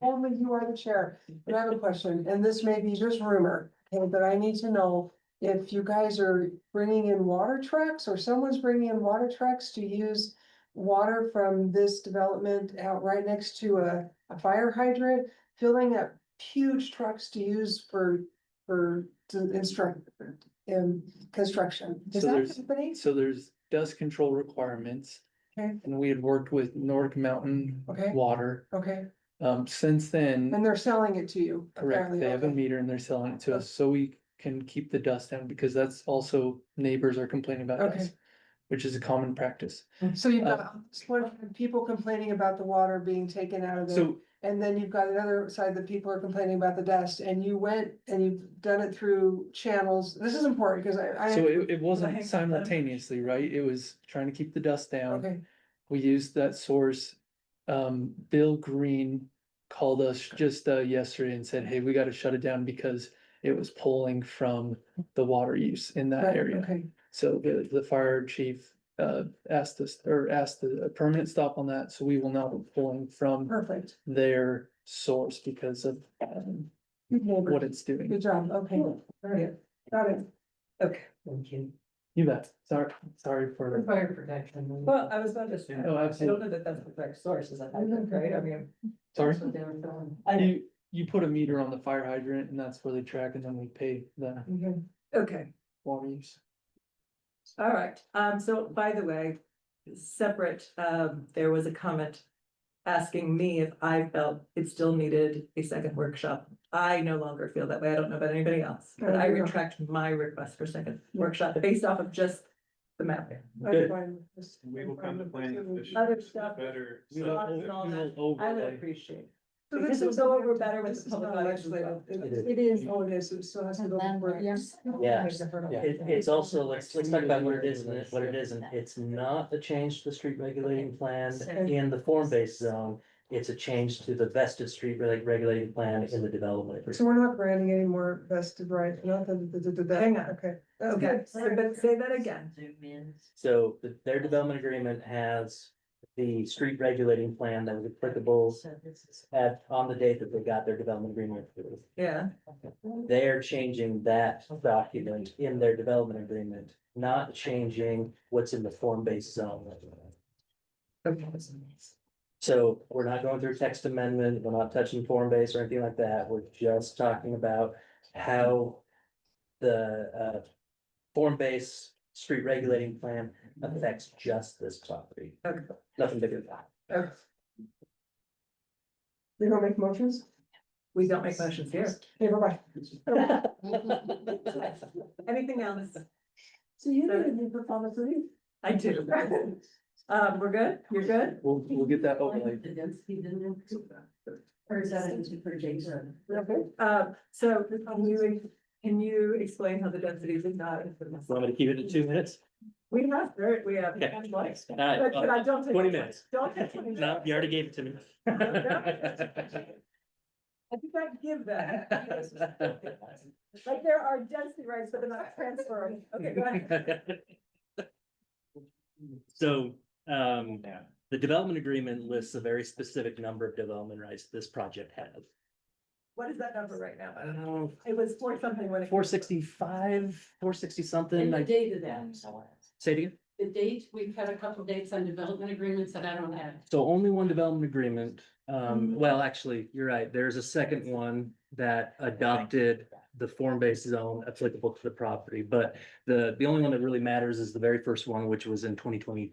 told me you are the chair, but I have a question, and this may be just rumor, okay, but I need to know. If you guys are bringing in water trucks or someone's bringing in water trucks to use water from this development out right next to a, a fire hydrant. Filling up huge trucks to use for, for, to instruct, in construction. Does So that there's- company? So there's dust control requirements. Okay. And we had worked with Nordic Mountain Okay. Water. Okay, Um, since then, and they're selling it to you. correct, apparently, they have a okay. Oh. meter and they're selling it to us, so we can keep the dust down because that's also neighbors are complaining about Okay. dust. Which is a common practice. So you've Uh, got this one, people complaining about the water being taken out of there, So and then you've got another side that people are complaining about the dust, and you went and you've done it through channels, this is important, because I, So I, it, it Right. wasn't simultaneously, right? It was trying to keep the dust down. okay, We used that source. Um, Bill Green called us just, uh, yesterday and said, hey, we gotta shut it down because it was pulling from the water use in that right, area. okay, So the, the fire chief, uh, asked us, or asked a a permanent stop on that, so we will not be pulling from perfect. their source because of um, Good neighbor. what it's doing. Good job, okay, all right, got it. Okay, thank you. You bet. Sorry, sorry for. Fire protection. Well, I was about to say, I No, don't absolutely. know that that's the correct source, is that hydrant, right? I mean. Sorry. that's what they were filling. I, You, you put a meter on the fire hydrant and that's where they track and then we pay the Okay. okay, water use. all right. Um, so by the way, separate, um, there was a comment asking me if I felt it still needed a second workshop. I no longer feel that way. I don't know about anybody else, but I There you go. retract my request for second workshop based off of just the mapping. I'm fine with this. We will come to planning. commission. Other stuff. Better. We will- subject. we will- I would overlay. appreciate. So Because this it's is all over better with this the is public not legislative. legislative. It is, oh, it is, it still has to go. before- Yeah. Yeah. It, it's also, let's, let's talk about what it is, and what it isn't, it's not a change to the street regulating plan in the form-based zone. It's a change to the vested street reg- regulating plan in the development. So we're not granting any more vested rights, not that, that, that, that- Hang on. okay. That's Okay, good. so but say that again. So the- their development agreement has the street regulating plan that was applicable at, on the date that they got their development agreement. approved. Yeah, They're changing that document in their development agreement, not changing what's in the form-based zone. okay. So we're not going through text amendment, we're not touching form base or anything like that, we're just talking about how the uh form base street regulating plan affects just this property. Okay. Nothing bigger than that. Okay. We don't make motions? We don't make motions here. Okay, bye-bye. Anything else? So you did a new performance review. I do. Um, we're good? You're good? We'll, we'll get that overlay. Or is that into for Jason? Okay. Um, so can you, can you explain how the densities is not? Want me to keep it to two minutes? We have, third, we have. Okay. ten likes. All But but right, I don't. take 20 minutes. Don't take twenty No, minutes. you already gave it to me. I think I give that. Like there are density rights, but they're not transferring. Okay, go ahead. So, um, the development agreement lists a very specific number of development rights this project has. What is that number right now? I don't know, It was four something when it. four sixty-five, four sixty something, And the like, date of that, say it again. the date, we've had a couple dates on development agreements that I don't have. So only one development agreement, um, Mm-hmm. well, actually, you're right, there's a second one that adopted the form-based zone applicable to the property, but the, the only one that really matters is the very first one, which was in twenty twenty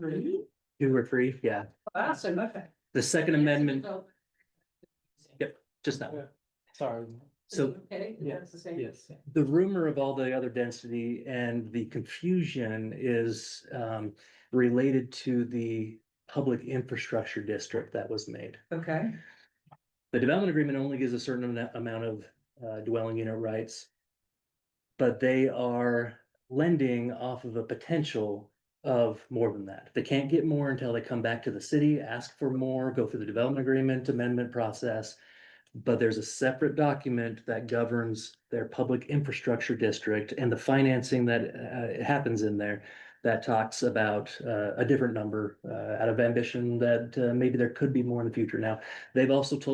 Mm-hmm. Really? two or three, yeah. Awesome, Ah, okay. The second amendment, just that one. Sorry. So Okay, Yeah. that's the same. Yes. the rumor of all the other density and the confusion is um related to the public infrastructure district that was made. Okay. The development agreement only gives a certain amount- amount of uh dwelling unit rights. But they are lending off of a potential of more than that. They can't get more until they come back to the city, ask for more, go through the development agreement amendment process. But there's a separate document that governs their public infrastructure district and the financing that uh happens in there. That talks about uh a different number uh out of ambition that uh maybe there could be more in the future. Now, they've also told